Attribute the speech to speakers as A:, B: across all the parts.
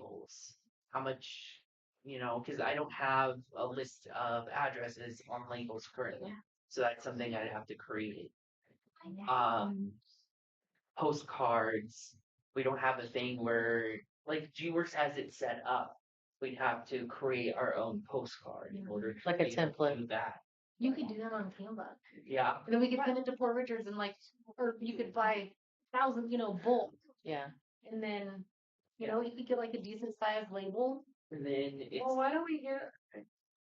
A: tables? How much, you know, because I don't have a list of addresses on labels currently. So that's something I'd have to create.
B: Uh,
A: Um, postcards, we don't have a thing where, like G Works has it set up. We'd have to create our own postcard in order to.
B: Like a
A: be able to
B: template.
A: do That,
C: You could do that on Canva.
A: yeah,
C: And then we could send it to Port Richards and like, or you could buy
B: Mm-hmm.
C: thousands, you know, bulk.
B: Yeah.
C: And then, you know, you could get like a decent sized label.
A: and then it's.
D: Well, why don't we get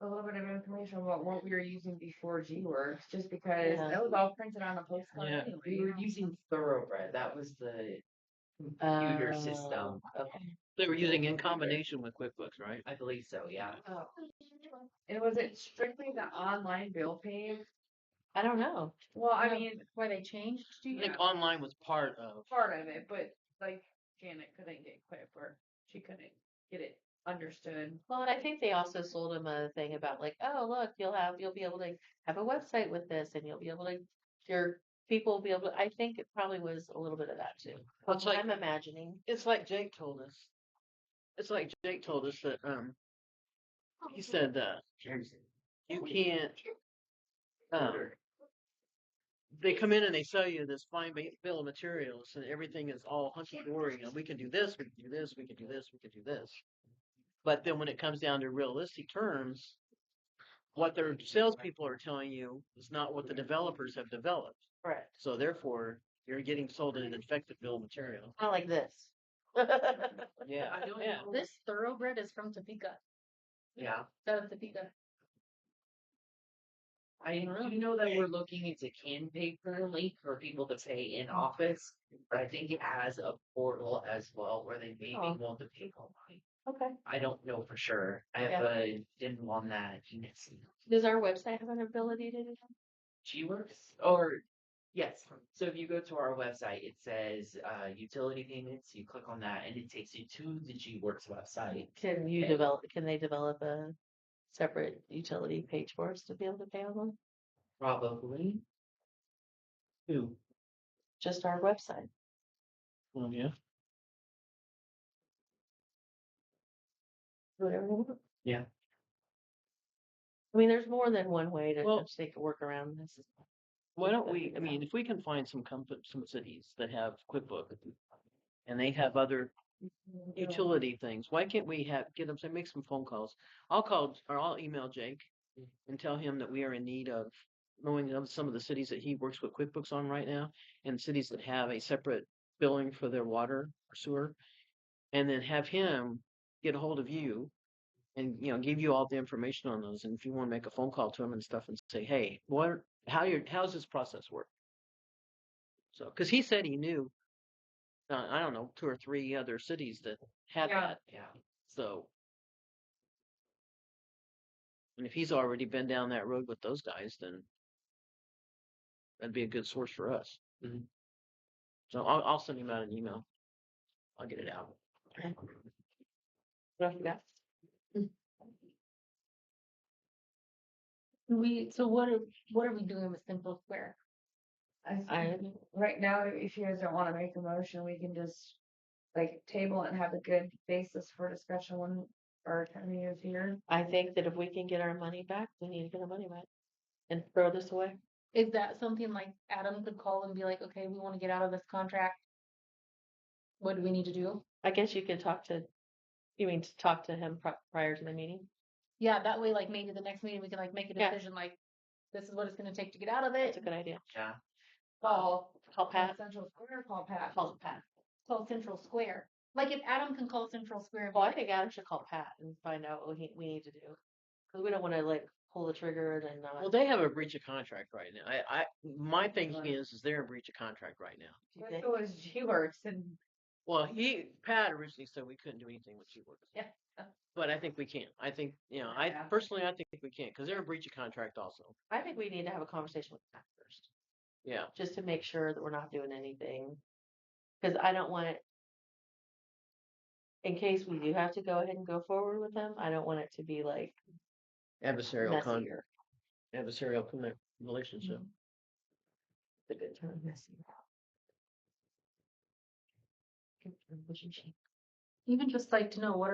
D: a little bit of information about what we were using before G Works, just because
B: Yeah.
D: that was all printed on a postcard
E: Yeah.
D: anyway.
A: We were using Thoroughbred. That was the computer
B: Oh,
A: system.
B: Okay.
E: They were using in combination with QuickBooks, right?
A: I believe so, yeah.
D: Oh. And was it strictly the online bill pay?
B: I don't know.
D: Well, I
C: No.
D: mean,
C: Where they changed
E: I
C: to.
D: Yeah.
E: think online was part of.
D: part of it, but like Janet couldn't get Quip or she couldn't get it understood.
B: Well, and I think they also sold him a thing about like, oh, look, you'll have you'll be able to have a website with this, and you'll be able to your people will be able to. I think it probably was a little bit of that too.
E: Well, it's like-
B: I'm imagining.
E: It's like Jake told us. It's like Jake told us that um he said uh you can't um they come in and they sell you this fine ba- bill of materials and everything is all hunky dory and we can do this, we can do this, we can do this, we can do this. But then when it comes down to realistic terms, what their salespeople are telling you is not what the developers have developed.
B: Correct.
E: So therefore, you're getting sold an defective bill of material.
B: Not like this.
E: Yeah.
A: I don't
E: yeah.
A: know.
C: This thoroughbred is from Topeka.
A: Yeah.
C: Out of Topeka.
A: I do know that we're looking into can pay currently for people to pay in office, but I think it has a portal as well where they may be
B: Oh.
A: able to pay online.
B: Okay.
A: I don't know for sure. I
B: Yeah.
A: have a didn't on that.
B: Does our website have an ability to do that?
A: G Works or yes. So if you go to our website, it says uh, utility payments. You click on that, and it takes you to the G Works website.
B: Uh, Can you
A: Okay.
B: develop? Can they develop a separate utility page for us to be able to pay on them?
A: Probably. Who?
B: Just our website.
E: Well, yeah.
B: Whatever. they want.
A: Yeah.
B: I mean, there's more than one way to
E: Well-
B: which they could work around this.
E: Why don't we, I mean, if we can find some comfort, some cities that have QuickBooks and they have other Mm-hmm. utility things, why can't we have, get them, to make some phone calls? I'll call, or I'll email Jake and tell him that we are in need of knowing of some of the cities that he works with QuickBooks on right now and cities that have a separate billing for their water or sewer. And then have him get a hold of you and, you know, give you all the information on those. And if you want to make a phone call to him and stuff and say, hey, what, how your how's this process work? So, because he said he knew, uh, I don't know, two or three other cities that had
D: Yeah.
E: that.
A: Yeah.
E: So, and if he's already been down that road with those guys, then that'd be a good source for us.
A: Mhm.
E: So I'll, I'll send him out an email. I'll get it out.
B: What else you got?
C: Mm. We, so what are, what are we doing with Simple Square?
B: I,
D: right now, if you guys don't want to make a motion, we can just like table it and have a good basis for discussion when our attorney is here.
B: I think that if we can get our money back, we need to get our money back and throw this away.
C: Is that something like Adam could call and be like, okay, we want to get out of this contract? What do we need to do?
B: I guess you could talk to, you mean to talk to him pri- prior to the meeting?
C: Yeah, that way, like maybe the next meeting we can like make a
B: Yeah.
C: decision, like this is what it's gonna take to get out of
B: That's
C: it.
B: a good idea.
A: Yeah.
E: Oh.
D: Call
B: Call Pat.
D: Central Square, call Pat.
B: Call Pat.
C: Call Central Square. Like if Adam can call Central Square, and be
B: Well, I
C: like,
B: think Adam should call Pat and find out what he, we need to do. Cause we don't wanna like pull the trigger and then not.
E: Well, they have a breach of contract right now. I, I
D: Oh,
E: my thinking is, is they're in breach of contract right now.
B: You
D: It
B: think?
D: was G Works and
E: Well, he Pat originally said we couldn't do anything with G-Works.
D: Yeah.
E: But I think we can. I think you know. I
D: Yeah.
E: personally, I think we can because they're in breach of contract also.
B: I think we need to have a conversation with Pat first,
E: Yeah.
B: just to make sure that we're not doing anything. Cause I don't want it. In case we do have to go ahead and go forward with them, I don't want it to be like
E: Adversarial con
B: messier.
E: adversarial con- relationship.
B: The good term, messier. Good term, relationship.
D: even just like to know what are